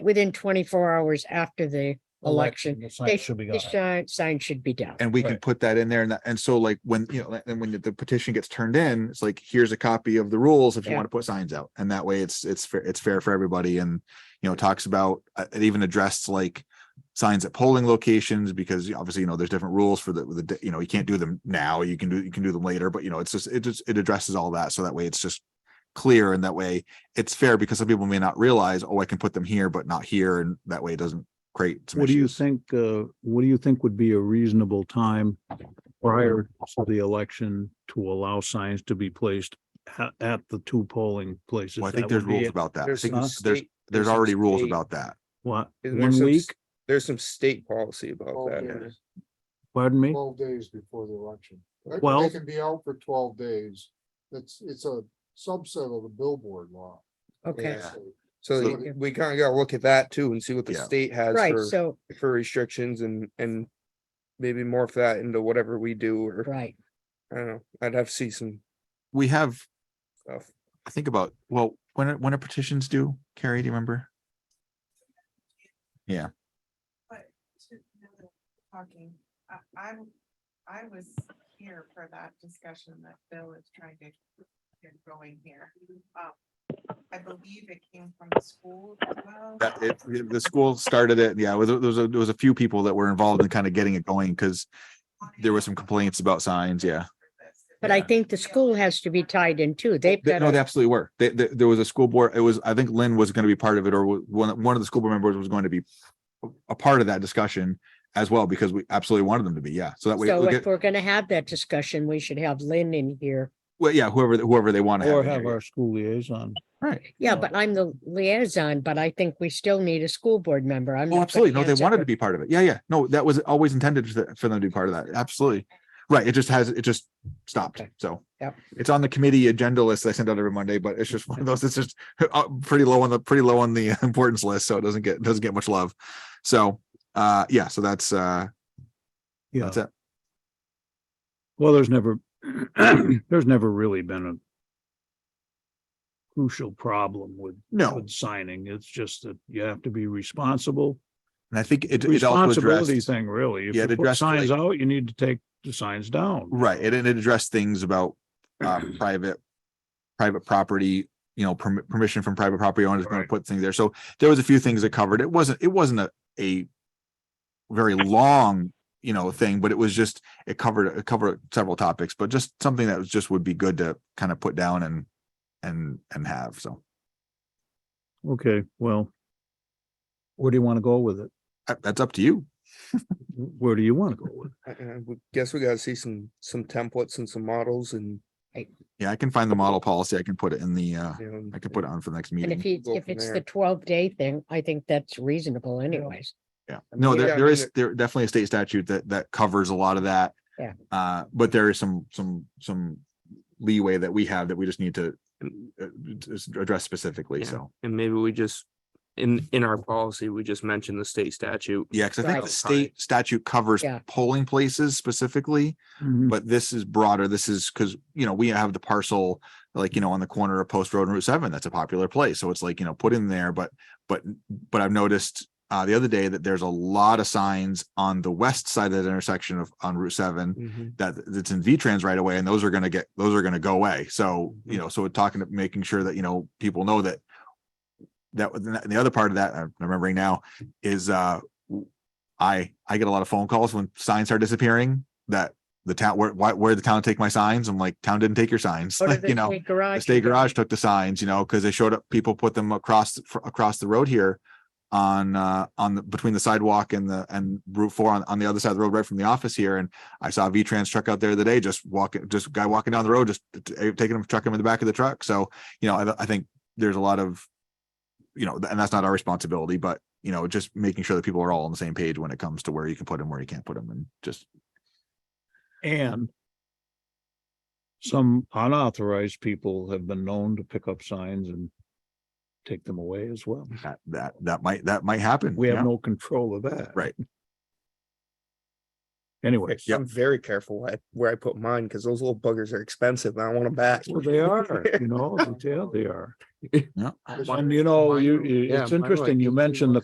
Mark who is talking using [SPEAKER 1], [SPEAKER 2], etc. [SPEAKER 1] within twenty-four hours after the election.
[SPEAKER 2] The
[SPEAKER 1] They-
[SPEAKER 2] sign should be
[SPEAKER 1] The
[SPEAKER 2] gone.
[SPEAKER 1] sign, sign should be down.
[SPEAKER 3] And we can
[SPEAKER 2] Right.
[SPEAKER 3] put that in there and that, and so like when, you know, and when the petition gets turned in, it's like, here's a copy of the rules if you
[SPEAKER 1] Yeah.
[SPEAKER 3] want to put signs out. And that way it's, it's, fair it's fair for everybody and, you know, talks about, uh, it even addressed like signs at polling locations because obviously, you know, there's different rules for the, the, you know, you can't do them now, you can do, you can do them later, but you know, it's just, it just, it addresses all that. So that way it's just clear and that way it's fair because some people may not realize, oh, I can put them here, but not here. And that way it doesn't create. some
[SPEAKER 4] What do you
[SPEAKER 3] issues.
[SPEAKER 4] think, uh, what do you think would be a reasonable time prior to the election to allow signs to be placed at, at the two polling places?
[SPEAKER 3] Well, I think
[SPEAKER 4] That
[SPEAKER 3] there's
[SPEAKER 4] would be
[SPEAKER 3] rules
[SPEAKER 4] it.
[SPEAKER 3] about that. I
[SPEAKER 5] There's
[SPEAKER 3] think
[SPEAKER 4] some
[SPEAKER 3] there's, there's,
[SPEAKER 5] state- there's some
[SPEAKER 3] already rules
[SPEAKER 5] state-
[SPEAKER 3] about that.
[SPEAKER 4] What,
[SPEAKER 5] Is there
[SPEAKER 4] one
[SPEAKER 5] some
[SPEAKER 4] week?
[SPEAKER 5] s- There's some state policy
[SPEAKER 1] Oh,
[SPEAKER 5] about that.
[SPEAKER 4] Pardon me?
[SPEAKER 6] Twelve days before the election. They-
[SPEAKER 4] Well-
[SPEAKER 6] They can be out for twelve days. It's, it's a subset of the billboard law.
[SPEAKER 1] Okay,
[SPEAKER 5] Yeah.
[SPEAKER 6] So
[SPEAKER 5] So
[SPEAKER 6] So-
[SPEAKER 5] we kind of gotta look at that too and see what the
[SPEAKER 3] Yeah.
[SPEAKER 5] state has
[SPEAKER 1] right,
[SPEAKER 5] for,
[SPEAKER 1] so,
[SPEAKER 5] for restrictions and, and maybe morph that into whatever we do or,
[SPEAKER 1] right,
[SPEAKER 5] I don't know, I'd have to see some
[SPEAKER 3] We have,
[SPEAKER 5] stuff.
[SPEAKER 3] I think about, well, when, are- when are petitions due? Carrie, do you remember?
[SPEAKER 7] to know that we're Talking, I, I'm, I was here for that discussion that Bill is trying to get going here. Um, I believe it came from the school as well.
[SPEAKER 3] That it, the- the school started it. Yeah, it was, there was, a- there was a few people that were involved in kind of getting it going because there was some complaints about signs. Yeah.
[SPEAKER 1] but I
[SPEAKER 3] Yeah.
[SPEAKER 1] think the school has to be tied in too. They've
[SPEAKER 3] They-
[SPEAKER 1] got,
[SPEAKER 3] No, they
[SPEAKER 1] to-
[SPEAKER 3] absolutely were. They, they, there was a school board. It was, I think Lynn was going to be part of it or wa- one, one of the school board members was going to be a part of that discussion as well because we absolutely wanted them to be. Yeah. So that way,
[SPEAKER 1] so
[SPEAKER 3] we'll
[SPEAKER 1] if
[SPEAKER 3] get-
[SPEAKER 1] we're gonna have that discussion, we should have Lynn in here.
[SPEAKER 3] well, yeah, whoever, whoever they want to have.
[SPEAKER 4] Or
[SPEAKER 3] in
[SPEAKER 4] have
[SPEAKER 3] here,
[SPEAKER 4] our school liaison?
[SPEAKER 3] Right.
[SPEAKER 1] Yeah,
[SPEAKER 4] No.
[SPEAKER 1] but I'm the liaison, but I think we still need a school board member. I'm. not
[SPEAKER 3] Oh,
[SPEAKER 1] putting
[SPEAKER 3] absolutely. No, they
[SPEAKER 1] hands up
[SPEAKER 3] wanted to
[SPEAKER 1] or-
[SPEAKER 3] be part of it. Yeah, yeah. No, that was always intended for th- for them to be part of that. Absolutely. Right. It just has, it just stopped.
[SPEAKER 1] Okay.
[SPEAKER 3] So.
[SPEAKER 1] Yep.
[SPEAKER 3] It's on the committee agenda list I send out every Monday, but it's just one of those, it's just uh, pretty low on the, pretty low on the importance list. So it doesn't get, doesn't get much love. So, uh, yeah, so that's, uh,
[SPEAKER 4] Yeah.
[SPEAKER 3] that's it.
[SPEAKER 4] Well, there's never, there's never really been a crucial problem with,
[SPEAKER 3] No,
[SPEAKER 4] with signing. It's just that you have to be responsible.
[SPEAKER 3] and I think it, it also
[SPEAKER 4] Responsibility
[SPEAKER 3] addressed,
[SPEAKER 4] thing, really. If
[SPEAKER 3] Yeah,
[SPEAKER 4] you
[SPEAKER 3] it
[SPEAKER 4] put
[SPEAKER 3] addressed,
[SPEAKER 4] signs out, you need to take the signs down.
[SPEAKER 3] right. It, it addressed things about, uh, private, private property, you know, permi- permission from private property owners going to
[SPEAKER 4] Right.
[SPEAKER 3] put things there. So there was a few things that covered. It wasn't, it wasn't a, a very long, you know, thing, but it was just, it covered, it covered several topics, but just something that was just would be good to kind of put down and, and, and have. So
[SPEAKER 4] Okay, well. Where do you want to go with it?
[SPEAKER 3] uh, that's up to you.
[SPEAKER 4] Where do you want to go with?
[SPEAKER 5] I, I would guess we gotta see some, some templates and some models and,
[SPEAKER 3] Yeah, I can find the model policy. I can put it in the, uh,
[SPEAKER 5] you know.
[SPEAKER 3] I can put it on for the next
[SPEAKER 1] And if
[SPEAKER 3] meeting.
[SPEAKER 1] he,
[SPEAKER 5] Go
[SPEAKER 1] if
[SPEAKER 5] from
[SPEAKER 1] it's the
[SPEAKER 5] there.
[SPEAKER 1] twelve day thing, I think that's reasonable anyways.
[SPEAKER 3] Yeah.
[SPEAKER 5] I
[SPEAKER 3] No,
[SPEAKER 5] mean,
[SPEAKER 3] there,
[SPEAKER 5] yeah, I
[SPEAKER 3] there
[SPEAKER 5] mean,
[SPEAKER 3] is, there definitely a state statute that, that covers a lot of that.
[SPEAKER 1] Yeah.
[SPEAKER 3] Uh, but there is some, some, some leeway that we have that we just need to uh, just address specifically.
[SPEAKER 5] Yeah.
[SPEAKER 3] So,
[SPEAKER 5] And maybe we just, in, in our policy, we just mentioned the state statute.
[SPEAKER 3] yeah, because I think
[SPEAKER 1] Right.
[SPEAKER 3] the state statute covers
[SPEAKER 1] Yeah.
[SPEAKER 3] polling places specifically,
[SPEAKER 5] Mm.
[SPEAKER 4] it?
[SPEAKER 3] but this is broader. This is because, you know, we have the parcel like, you know, on the corner of Post Road and Route Seven, that's a popular place. So it's like, you know, put in there, but, but, but I've noticed uh, the other day that there's a lot of signs on the west side of that intersection of, on Route Seven
[SPEAKER 5] Mm-hmm.
[SPEAKER 3] that that's in V-Trans right away and those are gonna get, those are gonna go away. So, you
[SPEAKER 5] Mhm.
[SPEAKER 3] know, so we're talking, to making sure that, you know, people know that that was, and the other part of that, I'm remembering now, is uh, w- I, I get a lot of phone calls when signs are disappearing that the town, where, why, where did the town take my signs? I'm like, town didn't take your signs,
[SPEAKER 1] Or
[SPEAKER 3] like,
[SPEAKER 1] the
[SPEAKER 3] you know.
[SPEAKER 1] state
[SPEAKER 3] The
[SPEAKER 1] garage.
[SPEAKER 3] state garage took the signs, you know, because they showed up, people put them across, fr- across the road here on, uh, on the, between the sidewalk and the, and Route Four on, on the other side of the road, right from the office here. And I saw a V-Trans truck out there the day, just walking, just guy walking down the road, just t- taking him, trucking him in the back of the truck. So, you know, I, I think there's a lot of, you know, and that's not our responsibility, but you know, just making sure that people are all on the same page when it comes to where you can put them, where you can't put them and just,
[SPEAKER 4] And some unauthorized people have been known to pick up signs and take them away as well.
[SPEAKER 3] that, that, that might, that might happen.
[SPEAKER 4] We
[SPEAKER 3] yeah.
[SPEAKER 4] have no control of that.
[SPEAKER 3] Right.
[SPEAKER 4] Anyway,
[SPEAKER 5] Like, I'm very careful where I, where I put mine, because those little buggers are expensive, and I want them back.
[SPEAKER 4] well, they are, you know, they are- they are.
[SPEAKER 3] Yeah.
[SPEAKER 6] Because
[SPEAKER 4] And you know, you,
[SPEAKER 5] Yeah,
[SPEAKER 4] it's
[SPEAKER 5] mine were like
[SPEAKER 4] interesting, you
[SPEAKER 5] 18
[SPEAKER 4] mentioned the